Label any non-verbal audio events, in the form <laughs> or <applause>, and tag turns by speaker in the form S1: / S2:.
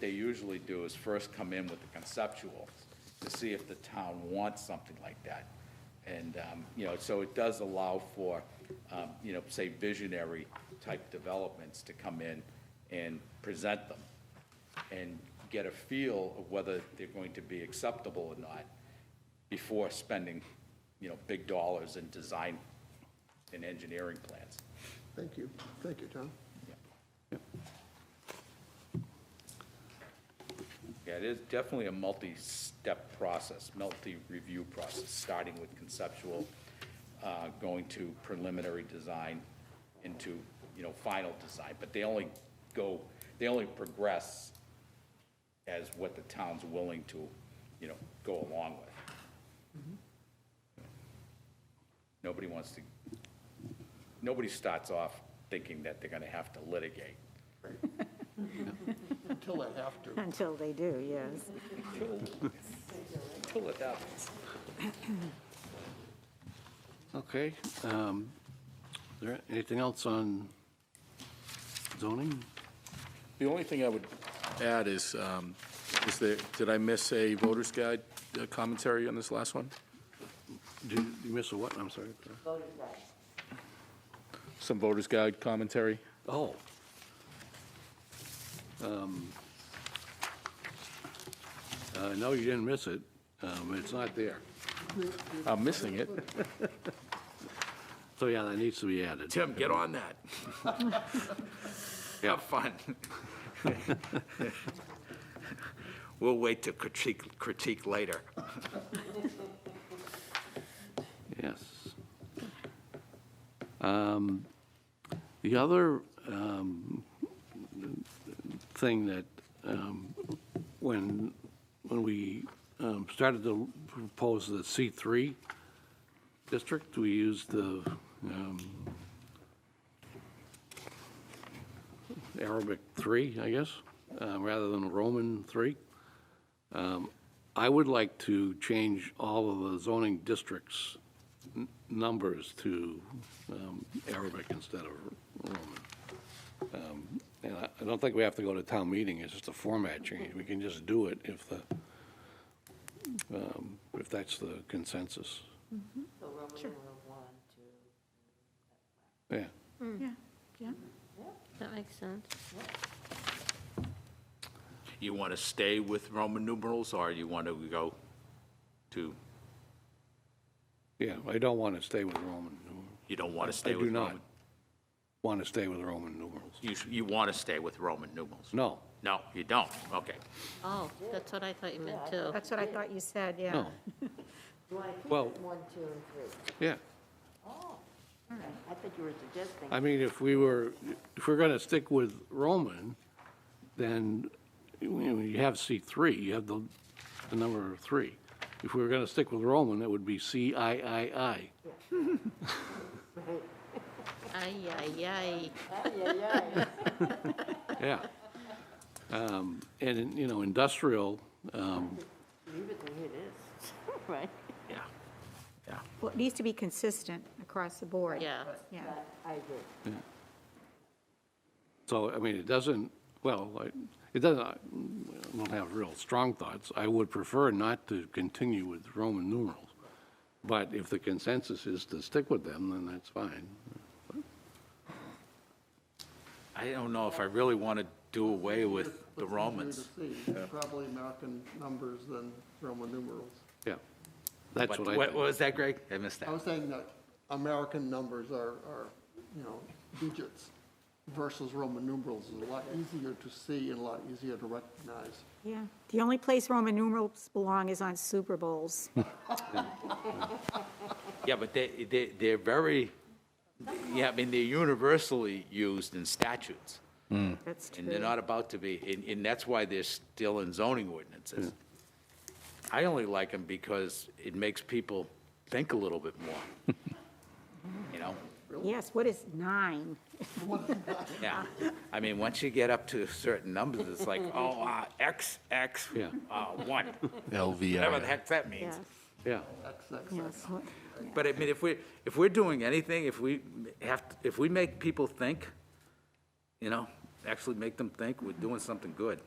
S1: they usually do is first come in with the conceptual to see if the town wants something like that. And, um, you know, so it does allow for, um, you know, say visionary type developments to come in and present them and get a feel of whether they're going to be acceptable or not before spending, you know, big dollars in design and engineering plans.
S2: Thank you, thank you, Tom.
S1: Yeah, it is definitely a multi-step process, multi-review process, starting with conceptual, uh, going to preliminary design, into, you know, final design. But they only go, they only progress as what the town's willing to, you know, go along with. Nobody wants to, nobody starts off thinking that they're going to have to litigate.
S2: Until I have to.
S3: Until they do, yes.
S1: Pull it up.
S4: Okay. um, is there Anything else on zoning?
S5: The only thing I would add is, um, is there, did I miss a voter's guide uh, commentary on this last one?
S4: Did you miss a what? I'm sorry.
S5: Some voter's guide commentary?
S4: Oh. Um, uh, No, you didn't miss it. Um, It's not there.
S5: I'm missing it.
S4: So, yeah, that needs to be added.
S5: Tim, get on
S4: <laughs>
S5: that. Have fun.
S6: We'll wait to critique, critique later.
S4: Yes. Um, The other um, thing that, um, when, when we um, started to propose the C3 district, we used the um, Arabic 3, I guess, uh, rather than Roman 3. I would like to change all of the zoning districts' n- numbers to um, Arabic instead of Roman. Um, And I I don't think we have to go to town meeting, it's just a format change. We can just do it if the, um, if that's the consensus.
S7: So Roman numeral one, two,
S4: Yeah.
S8: Yeah, yeah. That makes sense.
S6: You want to stay with Roman numerals, or you want to go to,
S4: Yeah, I don't want to stay with Roman numerals.
S6: you don't want to stay with?
S4: I do not
S6: Roman-
S4: want to stay with Roman numerals.
S6: You, sh- you want to stay with Roman numerals?
S4: No,
S6: No, you don't, okay.
S8: Oh, that's what I thought you meant too.
S3: That's what I thought you said, yeah.
S4: no,
S7: you want to keep
S4: Well-
S7: it one, two, and three?
S4: yeah.
S7: Oh, I thought you were suggesting.
S4: I mean, if we were, if we're going to stick with Roman, then you know, you have C3, you have the, the number three. If we were going to stick with Roman, it would be CIII.
S8: Ay, ay, ay.
S7: Ay, ay, ay.
S4: Yeah. Um, And, you know, industrial, um,
S7: Leave it the way it is, <laughs> right?
S6: Yeah, yeah.
S3: Well, it needs to be consistent across the board.
S8: Yeah,
S3: Yeah.
S7: But I agree.
S4: so, I mean, it doesn't, well, I- it doesn't, I don't have real strong thoughts. I would prefer not to continue with Roman numerals. But if the consensus is to stick with them, then that's fine.
S6: I don't know if I really want to do away with the Romans.
S2: It's easier to see. Probably American numbers than Roman numerals.
S4: Yeah, that's
S6: What
S4: what I
S6: what
S4: think.
S6: was that, Greg? I missed
S2: I
S1: Oh,
S6: that.
S2: was saying that American numbers are, are, you know, digits versus Roman numerals is a lot easier to see and a lot easier to recognize.
S3: Yeah. The only place Roman numerals belong is on Super
S6: <laughs>
S3: Bowls.
S6: Yeah, but they, they, they're very, yeah, I mean, they're universally used in statutes.
S3: That's true.
S6: And they're not about to be, and, and that's why they're still in zoning ordinances. I only like them because it makes people think a little bit more. You know?
S3: Yes, what is nine?
S6: Yeah. I mean, once you get up to certain numbers, it's like, oh, uh, X, X,
S4: Yeah.
S6: uh, one, whatever the
S5: LVI.
S6: heck that means.
S3: Yes,
S4: Yeah,
S2: XXX.
S3: yes. what- yeah.
S6: But I mean, if we, if we're doing anything, if we have, if we make people think, you know, actually make them think, we're doing something good.